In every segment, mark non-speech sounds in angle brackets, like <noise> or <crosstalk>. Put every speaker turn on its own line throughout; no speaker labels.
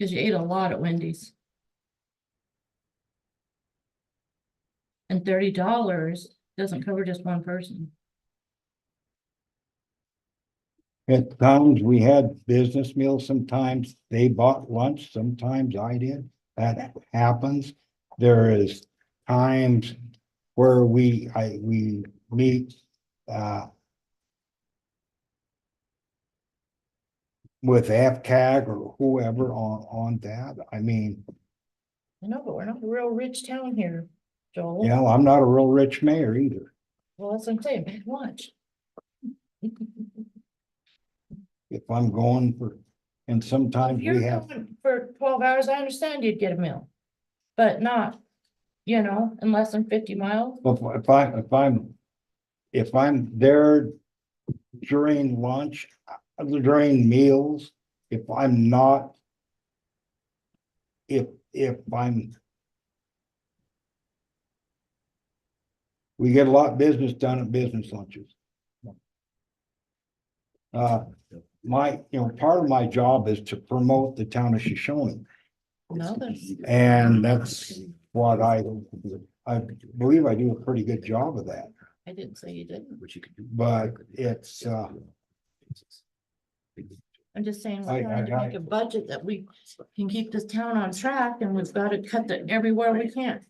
Cause you ate a lot at Wendy's. And thirty dollars doesn't cover just one person.
At times, we had business meals, sometimes they bought lunch, sometimes I did, that happens. There is times where we, I, we meet, uh. With AFCAG or whoever on, on that, I mean,
I know, but we're not a real rich town here, Joel.
you know, I'm not a real rich mayor either.
Well, that's what I'm saying, <laughs> pack lunch.
If I'm going for, and sometimes
If you're
we have,
going for twelve hours, I understand you'd get a meal. But not, you know, in less than fifty miles.
If if I, if I'm, if I'm there during lunch, uh, during meals, if I'm not. If, if I'm. We get a lot of business done at business lunches. Uh, my, you know, part of my job is to promote the town of Shoshone.
No, there's,
And that's what I, I believe I do a pretty good job of that,
I didn't say you didn't.
Which you could do.
but it's, uh,
I'm just saying,
I-
we're trying to
I- I-
make a budget that we can keep this town on track and we've got to cut it everywhere we can.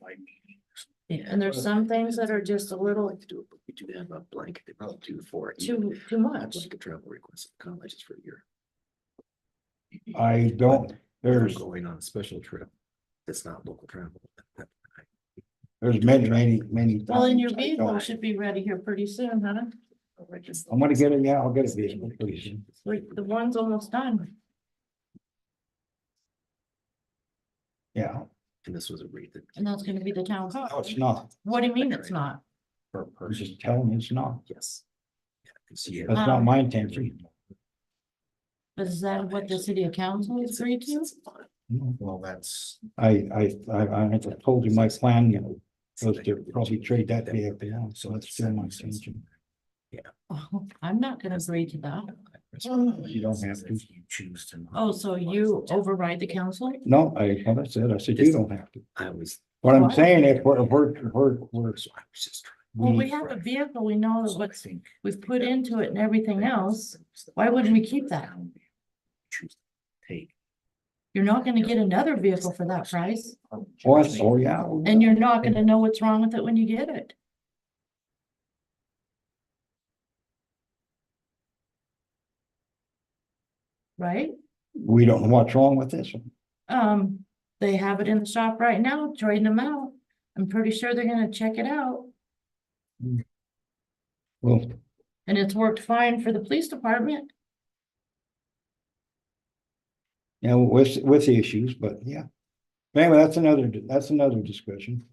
And there's some things that are just a little
Like to do it, but we do have a blanket, they probably do for it.
too, too much.
Like a travel request, kind of like just for a year.
I don't,
If I'm
there's,
Going on a special trip. That's not local travel. that-
there's many, many, many.
Well, and
times
your
I
vehicle
don't-
should be ready here pretty soon, huh?
I'm gonna get it, yeah, I'll get a vehicle, please.
Like, the one's almost done.
Yeah,
And this was a rate that.
And that's gonna be the town car.
no, it's not,
What do you mean it's not?
Per
I
person.
was just telling you it's not,
Yes. Yeah, and so you
that's
have-
Ah.
not my intention.
But Is that what the city of council has agreed to? <laughs>
Well, that's.
I, I, I, I I told you my plan, you know, was to probably trade that vehicle, yeah, so that's still my intention.
Oh, I'm not gonna agree to that.
You don't have to.
You choose to. not.
Oh, so you override the council?
No, I haven't said, I said you don't have to.
I was.
What I'm
Why?
saying is, we're, we're, we're, we're,
So I was just trying.
Well, we
we,
have a vehicle, we know
So I
what's,
think
we've put into it and everything else.
that's the
why wouldn't we
option
keep
for
that?
town. Choose to Take.
You're not gonna get another vehicle for that price,
oh, so, yeah.
and you're not gonna know what's wrong with it when you get it. Right?
We don't know what's wrong with this one.
Um, they have it in the shop right now, trading them out. I'm pretty sure they're gonna check it out.
Well,
And it's worked fine for the police department.
you know, with, with the issues, but yeah. But Anyway, that's another, that's another discussion.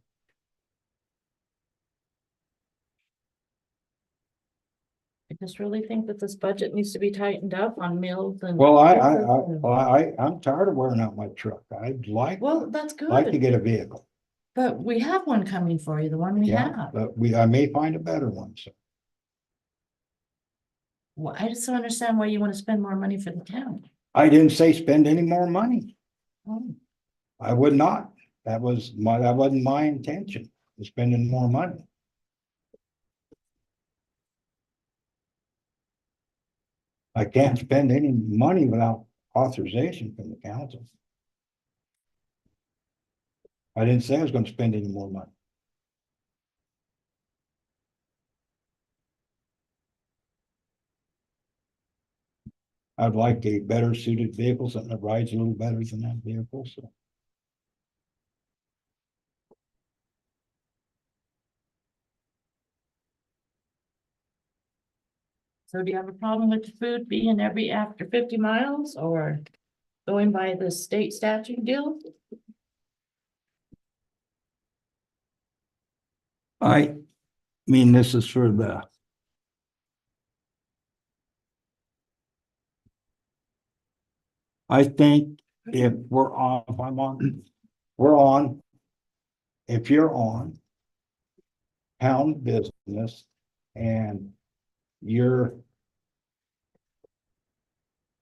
I just really think that this budget needs to be tightened up on meals and.
Well, I, I, I, well, I, I'm tired of wearing out my truck. I'd like,
Well, that's
like to
good,
get a vehicle.
but we have one coming for you, the one we
Yeah,
have.
but we, I may find a better one, so.
Well, I just don't understand why you wanna spend more money for the town.
I didn't say spend any more money.
Oh.
I would not. That was my, that wasn't my intention, was spending more money. I can't spend any money without authorization from the council. I didn't say I was gonna spend any more money. I'd like a better suited vehicle, something that rides a little better than that vehicle, so.
So do you have a problem with the food being every after fifty miles or going by the state statute deal?
I mean, this is for the. I think if we're on, if I'm on, we're on. If you're on. Town business and you're